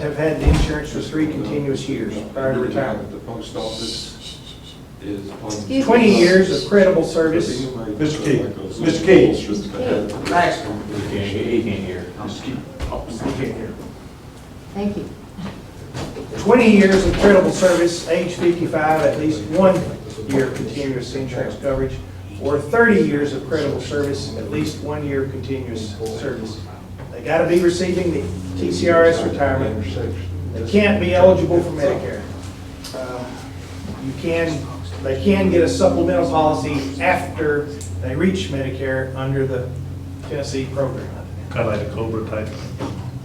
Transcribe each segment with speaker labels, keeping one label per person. Speaker 1: have had the insurance for three continuous years prior to retirement.
Speaker 2: The post office is. on-
Speaker 3: Excuse me.
Speaker 1: 20 years of credible service.
Speaker 4: Mr. Key. Mr. Key.
Speaker 2: Mr. Key.
Speaker 1: Right.
Speaker 4: He can't hear.
Speaker 2: Mr. Key.
Speaker 3: Thank you.
Speaker 1: 20 years of credible service, age 55, at least one year of continuous insurance coverage, or 30 years of credible service, at least one year of continuous service. They got to be receiving the TCRS retirement. They can't be eligible for Medicare. Uh, You can, they can get a supplemental policy after they reach Medicare under the Tennessee program.
Speaker 5: kind of like a Cobra type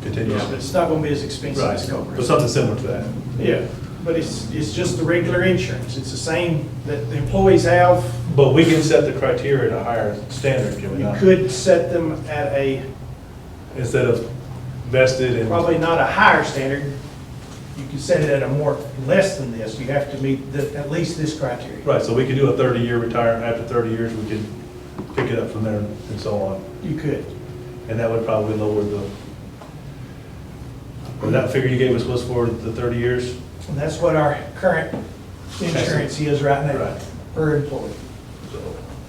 Speaker 5: continuous.
Speaker 1: But it's not going to be as expensive
Speaker 5: Right,
Speaker 1: as Cobra.
Speaker 5: but something similar to that.
Speaker 1: Yeah, but it's, it's just the regular insurance. It's the same that the employees have.
Speaker 5: But we can set the criteria to higher standard, can we
Speaker 1: You
Speaker 5: not?
Speaker 1: could set them at a,
Speaker 5: Instead of vested and,
Speaker 1: probably not a higher standard. You could set it at a more, less than this. You have to meet the, at least this criteria.
Speaker 5: right, so we could do a thirty-year retirement, after thirty years, we could pick it up from there and so on.
Speaker 1: You could.
Speaker 5: And that would probably lower the, or that figure you gave us was for the thirty years?
Speaker 1: And that's what our current insurance is right now
Speaker 5: Right.
Speaker 1: per employee.
Speaker 5: So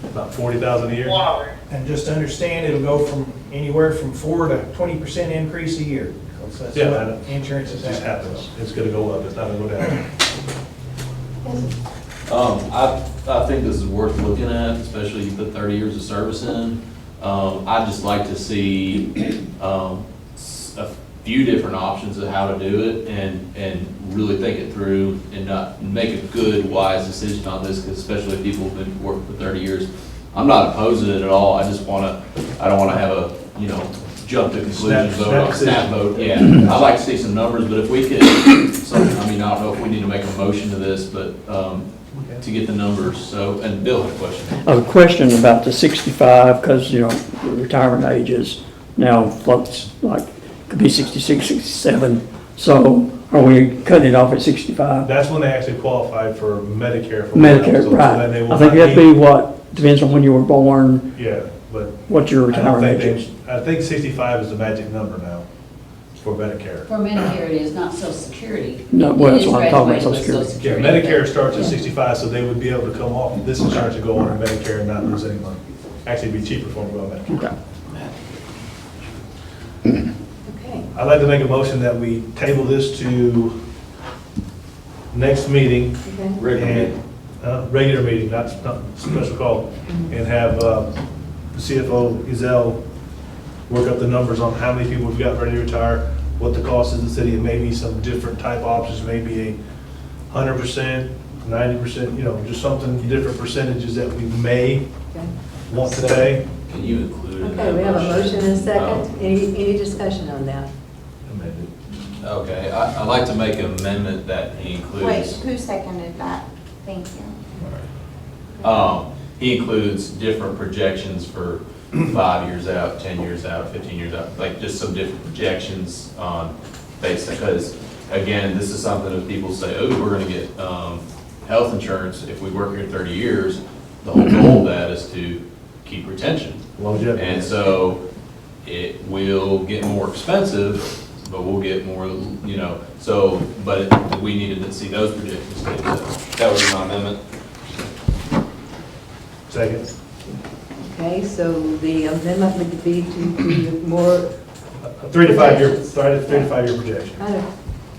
Speaker 5: About forty thousand a year?
Speaker 1: And just understand, it'll go from anywhere from four to twenty percent increase a year. 'cause That's
Speaker 5: Yeah, I know.
Speaker 1: what insurance
Speaker 5: It
Speaker 1: is
Speaker 5: just
Speaker 1: at.
Speaker 5: happens, it's gonna go up, it's not gonna go down.
Speaker 6: Um, I, I think this is worth looking at, especially you put thirty years of service in. Um, I'd just like to see, um, s- a few different options of how to do it and, and really think it through and not, make a good, wise decision on this, 'cause especially if people have been working for thirty years. I'm not opposed to it at all, I just wanna, I don't wanna have a, you know, jump to conclusion,
Speaker 5: Snap-
Speaker 6: vote
Speaker 5: snap
Speaker 6: on
Speaker 5: decision.
Speaker 6: snap vote, yeah. I'd like to see some numbers, but if we could, some, I mean, I don't know if we need to make a motion to this, but, um, to get the numbers, so, and Bill had a question.
Speaker 7: A question about the 65, because, you know, the retirement age is now floats, like, could be 66, 67. So are we cutting it off at 65?
Speaker 5: That's when they actually qualify for Medicare. for
Speaker 7: Medicare,
Speaker 5: themselves,
Speaker 7: right.
Speaker 5: and they will
Speaker 7: I think
Speaker 5: not
Speaker 7: that'd be what, depends on when you were born,
Speaker 5: Yeah, but
Speaker 7: what your
Speaker 5: I don't
Speaker 7: retirement
Speaker 5: think,
Speaker 7: age is.
Speaker 5: they- I think sixty-five is the magic number now for Medicare.
Speaker 3: For Medicare, it is not Social Security.
Speaker 7: No, well, that's
Speaker 3: It is
Speaker 7: what I'm talking about,
Speaker 3: graduated with
Speaker 7: Social
Speaker 5: Yeah, Medicare starts at sixty-five, so they would be able to come off this insurance and go on to Medicare and not lose any money. Actually, it'd be cheaper for them to go on Medicare.
Speaker 7: Okay.
Speaker 3: Okay,
Speaker 5: I'd like to make a motion that we table this to next meeting.
Speaker 3: okay.
Speaker 5: and, uh, Regular meeting, not, not special call, and have uh, the CFO, Gazelle, work up the numbers on how many people we've got ready to retire, what the cost is in the city, and maybe some different type options, maybe a hundred percent, ninety percent, you know, just something, different percentages that we may
Speaker 8: Okay,
Speaker 5: want to pay.
Speaker 6: Can you include in that
Speaker 8: Okay. we have a motion and a second. Any, any discussion on that?
Speaker 6: Oh, Okay, I, I'd like to make an amendment that he
Speaker 9: Wait,
Speaker 6: includes,
Speaker 9: who seconded that? Thank you.
Speaker 6: um, he includes different projections for five years out, ten years out, fifteen years out, like just some different projections on base, because again, this is something that people say, oh, we're gonna get, um, health insurance if we work here thirty years. The whole goal of that is to keep retention. And
Speaker 5: Longevity.
Speaker 6: so it will get more expensive, but we'll get more, you know, so, but we needed to see those projections. too, so That was my amendment.
Speaker 5: Second.
Speaker 8: Okay, so the amendment would be to be more,
Speaker 5: A Three to five year, sorry, three to five year projection.
Speaker 8: kind of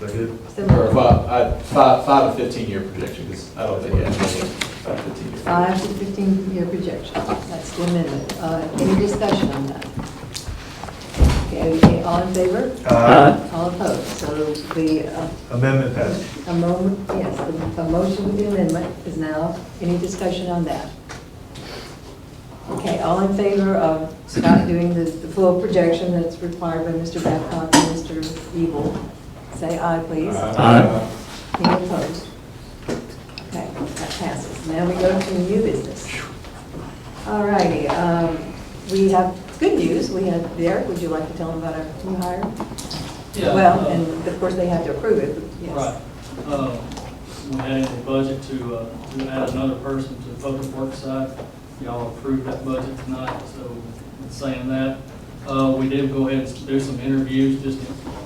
Speaker 5: Is that good?
Speaker 6: Or
Speaker 8: similar,
Speaker 6: five, I- five, five to 15 year projection, 'cause I don't think, yeah, five to 15 year.
Speaker 8: five to 15-year projection. That's the amendment. Uh, Any discussion on that? Okay, all in favor?
Speaker 5: Uh,
Speaker 8: All opposed? So the uh,
Speaker 5: Amendment passed.
Speaker 8: A moment, yes, a a motion with the amendment is now, any discussion on that? Okay, all in favor of Scott doing the, the full projection that's required by Mr. Babcock and Mr. Evil? Say aye, please.
Speaker 7: Aye.
Speaker 8: Any opposed? Okay, that passes. Now we go to new business. All righty, um, we have good news, we had, Derek, would you like to tell them about our new hire?
Speaker 10: Yeah,
Speaker 8: Well,
Speaker 10: uh,
Speaker 8: and of course, they have to approve it, but yes.
Speaker 10: Right. Uh, We had in the budget to, uh, to add another person to the public work side. Y'all approved that budget tonight, so in saying that, uh, we did go ahead and do some interviews just to